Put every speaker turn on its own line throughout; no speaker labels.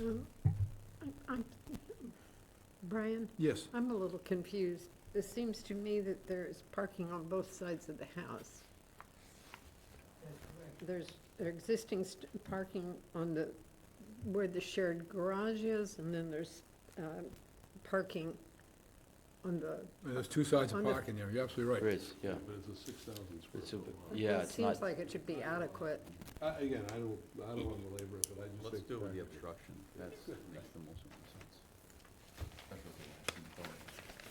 Um, I- I'm- Brian,
Yes,
I'm a little confused. It seems to me that there is parking on both sides of the house. There's existing st- parking on the, where the shared garage is, and then there's um, parking on the,
there's two sides of
On the-
parking there, you're absolutely right.
There is, yeah.
But it's a six thousand square
It's a-
foot lot.
Yeah,
it
it's not,
seems like it should be adequate.
I- Again, I don't, I don't want to belabor it, but I just think.
Let's do
back-
the obstruction, that's, makes the most sense.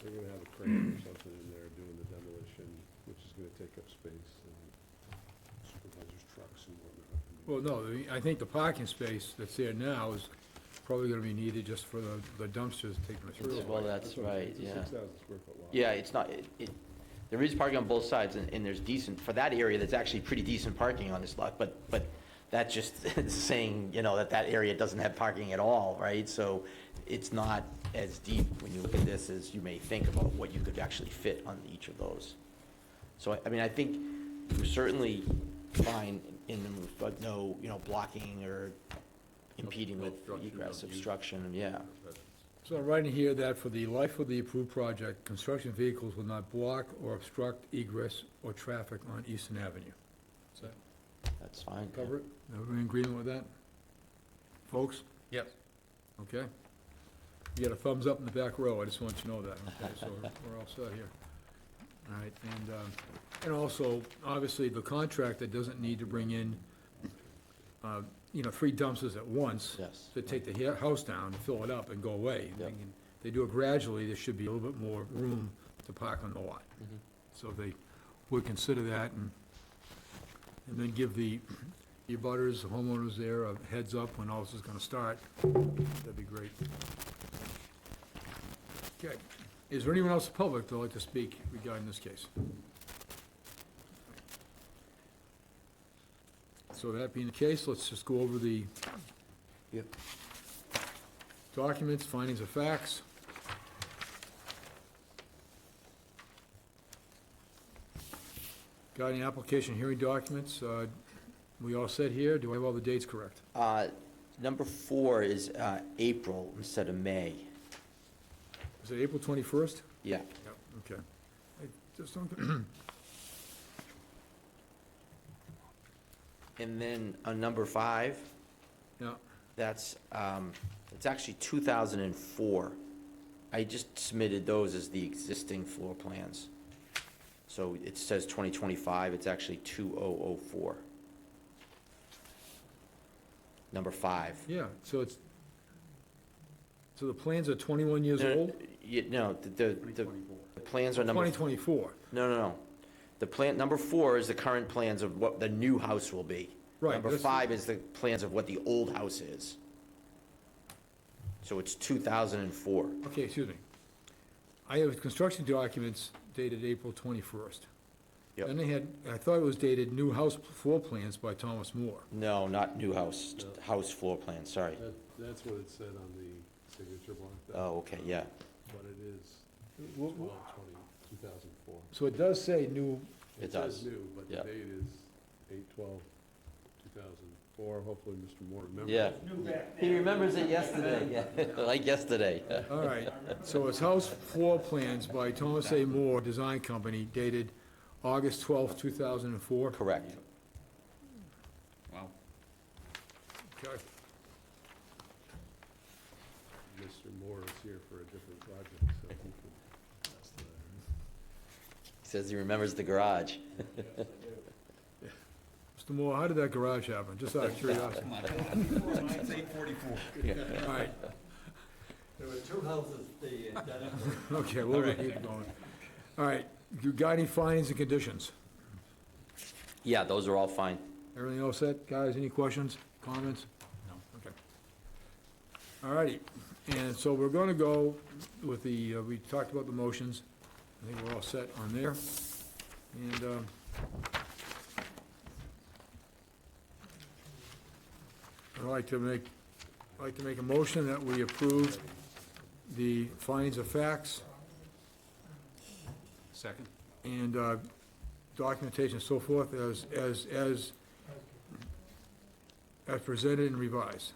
They're gonna have a crane or something in there doing the demolition, which is gonna take up space and supervisors' trucks and whatnot.
Well, no, the- I think the parking space that's there now is probably gonna be needed just for the the dumpsters taking it through.
well, that's
what I'm
right, yeah.
saying, It's a six thousand square foot lot.
yeah, it's not, it, it, there is parking on both sides, and, and there's decent, for that area, that's actually pretty decent parking on this lot, but, but that's just saying, you know, that that area doesn't have parking at all, right? So it's not as deep when you look at this as you may think about what you could actually fit on each of those. So, I- I mean, I think we're certainly fine in the move, but no, you know, blocking or impeding with
Obstruction of
egress,
use.
obstruction, yeah.
So I'm writing here that for the life of the approved project, construction vehicles will not block or obstruct egress or traffic on Eastern Avenue. Does that
That's fine. yeah.
cover it? Everyone in agreement with that? Folks,
Yes.
okay? You got a thumbs up in the back row, I just want you to know that, okay? So we're all set here. All right, and, um, and also, obviously, the contractor doesn't need to bring in, uh, you know, three dumpsters at once.
Yes.
to take the he- house down, fill it up, and go away.
Yep.
If They do it gradually, there should be a little bit more room to park on the lot.
Mhm.
So they would consider that, and, and then give the, the butters, the homeowners there, a heads up when all this is gonna start. That'd be great. Okay, is there anyone else in public that'd like to speak regarding this case? So that being the case, let's just go over the documents, findings of facts. Got any application hearing documents, uh, we all set here, do I have all the dates correct?
Uh, Number four is uh, April instead of May.
Is it April twenty-first?
Yeah,
Yep. Okay. I just don't,
and then on number five,
yeah,
that's, um, it's actually 2004. I just submitted those as the existing floor plans. So it says 2025, it's actually 2004. Number five.
yeah, so it's, so the plans are twenty-one years
No,
old?
yeah, No, the, the- the, the plans are Uh, number.
Twenty twenty-four,
No, no, no. The plan, number four is the current plans of what the new house will be.
Right,
Number
that's-
five is the plans of what the old house is. So it's 2004.
okay, excuse me. I have construction documents dated April twenty-first.
Yep.
And they had, I thought it was dated new house floor plans by Thomas Moore.
No, not new house, t-
No.
house floor plan, sorry.
That, that's what it said on the signature block. that-
Oh, okay, yeah.
But it is
Well,
twelve twenty, two thousand four.
So it does say new,
It
says
does.
new, but
Yeah.
the date is eight twelve, two thousand four. Hopefully, Mr. Moore remembers.
Yeah. He remembers it yesterday, yeah, like yesterday.
all right, so it's house floor plans by Thomas A. Moore Design Company dated August twelfth, two thousand and four.
Correct.
Wow.
Okay.
Mr. Moore is here for a different project, so he can pass the
He says he remembers the garage.
Mr. Moore, how did that garage happen? Just out of curiosity.
It's eight forty-four.
All right,
There were two houses, the, uh, that are-
okay, we'll keep going. All right, you got any findings and conditions?
Yeah, those are all fine.
Everything all set, guys? Any questions, comments? No. Okay. All righty, and so we're gonna go with the, uh, we talked about the motions. I think we're all set on there. And, um, I'd like to make, I'd like to make a motion that we approve the findings of facts
Second?
and uh, documentation and so forth as, as, as, as presented and revised.